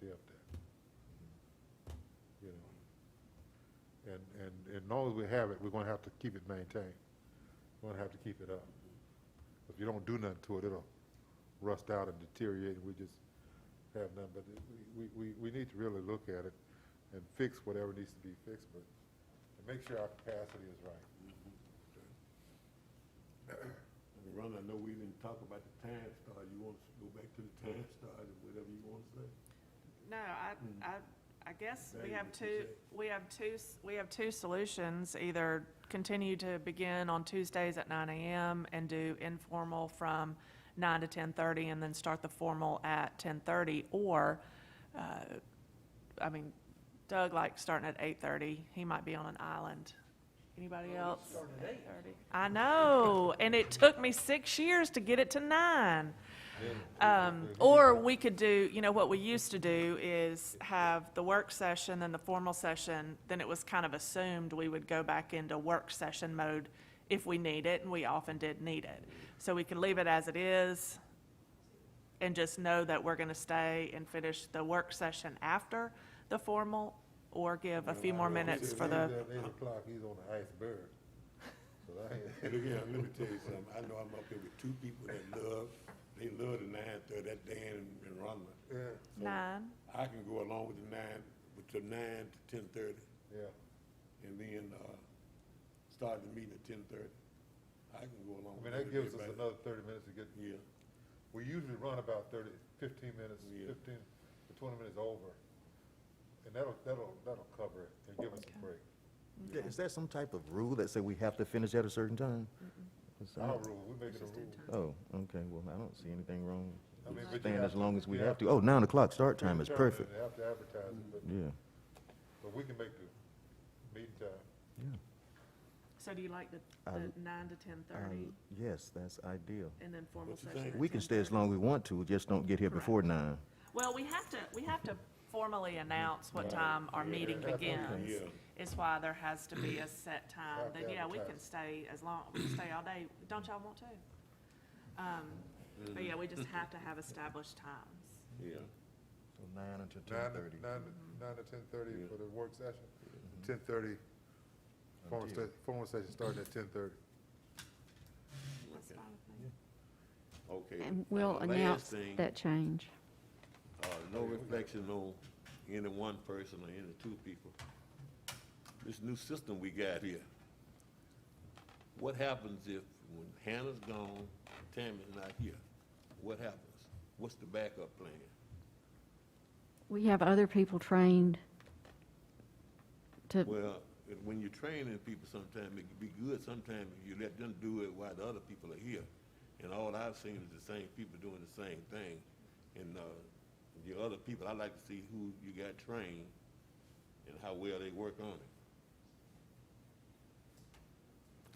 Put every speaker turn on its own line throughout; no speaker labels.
be up there. You know? And, and, and long as we have it, we're gonna have to keep it maintained. We're gonna have to keep it up. If you don't do nothing to it, it'll rust out and deteriorate, and we just have none, but it- we, we, we need to really look at it and fix whatever needs to be fixed, but, and make sure our capacity is right.
Ron, I know we didn't talk about the time star. You want us to go back to the time star and whatever you want to say?
No, I,
Mm.
I, I guess we
Value
have
what you
two, we have two, s- we have two solutions. Either continue to begin on Tuesdays at nine AM and do informal from nine to ten-thirty and then start the formal at ten-thirty, or, uh, I mean, Doug likes starting at eight-thirty. He might be on an island. Anybody else? Eight-thirty. I know, and it took me six years to get it to nine. Um, or we could do, you know, what we used to do is have the work session, then the formal session, then it was kind of assumed we would go back into work session mode if we need it, and we often did need it. So we could leave it as it is and just know that we're gonna stay and finish the work session after the formal, or give a few more minutes for the.
At Eight o'clock, he's on the iceberg. So I ain't-
Look here, let me tell you something. I know I'm up here with two people that love, they love the nine thirty, that Dan and Ron.
Yeah,
Nine,
I can go along with the nine, with the nine to ten thirty,
yeah.
and then, uh, start the meeting at ten thirty. I can go along.
I mean,
with
that gives us
everybody.
another thirty minutes to get,
Yeah,
we usually run about thirty, fifteen minutes,
Yeah.
fifteen to twenty minutes over. And that'll, that'll, that'll cover it and give us a break.
Yeah, Is that some type of rule that say we have to finish at a certain time? It's
Our
not-
rule, we make it a rule.
Oh, okay, well, I don't see anything wrong.
I
with
mean, but you
Staying
have
as
to-
long as we
you
have to. Oh, nine o'clock start time is
Determine it,
perfect.
they Have to advertise it, but,
Yeah,
but we can make the meeting time.
yeah.
so do you like the,
I-
the nine to ten-thirty,
Um, Yes, that's ideal.
and then formal
What you
session
think?
at
We can stay as
10:30?
long as we want to, just don't get here
Correct.
before nine.
Well, we have to, we have to formally announce what
Right.
time our
Yeah,
meeting
that's okay.
begins.
Yeah.
Is why there has to be a set time,
Have
then,
to
yeah, we can
advertise.
stay as long, we can stay all day, don't y'all want to? Um, but yeah, we just have to have established times.
yeah.
So Nine until
Nine to, nine to, nine to ten thirty
Yeah.
for the work session,
Mm-hmm.
ten thirty, formal
Until-
session, formal session starting at ten thirty.
That's
Okay.
fine with me.
Okay.
And
Now,
we'll
the last
announce
thing,
that change.
uh, No reflection on any one person or any two people. This new system we got here. What happens if, when Hannah's gone, Tammy's not here? What happens? What's the backup plan?
We have other people trained to,
Well, if- when you're training people sometimes, it can be good, sometimes if you let them do it while the other people are here. And all I've seen is the same people doing the same thing. And, uh, the other people, i like to see who you got trained and how well they work on it.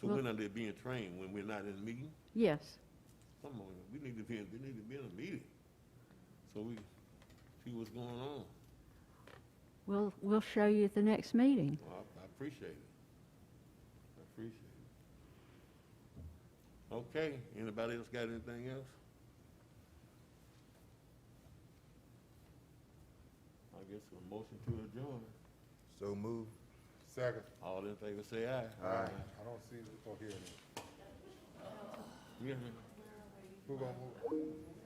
So when are they being trained? When we're not in a meeting?
yes.
Come on, we need to be, in- we need to be in a meeting. So we see what's going on.
We'll, we'll show you at the next meeting.
Well, I I appreciate it. I appreciate it. Okay, anybody else got anything else? I guess a motion to adjourn.
So move.
Second,
All in favor, say aye.
I don't see, or hear any.
Yeah.
Who gonna move?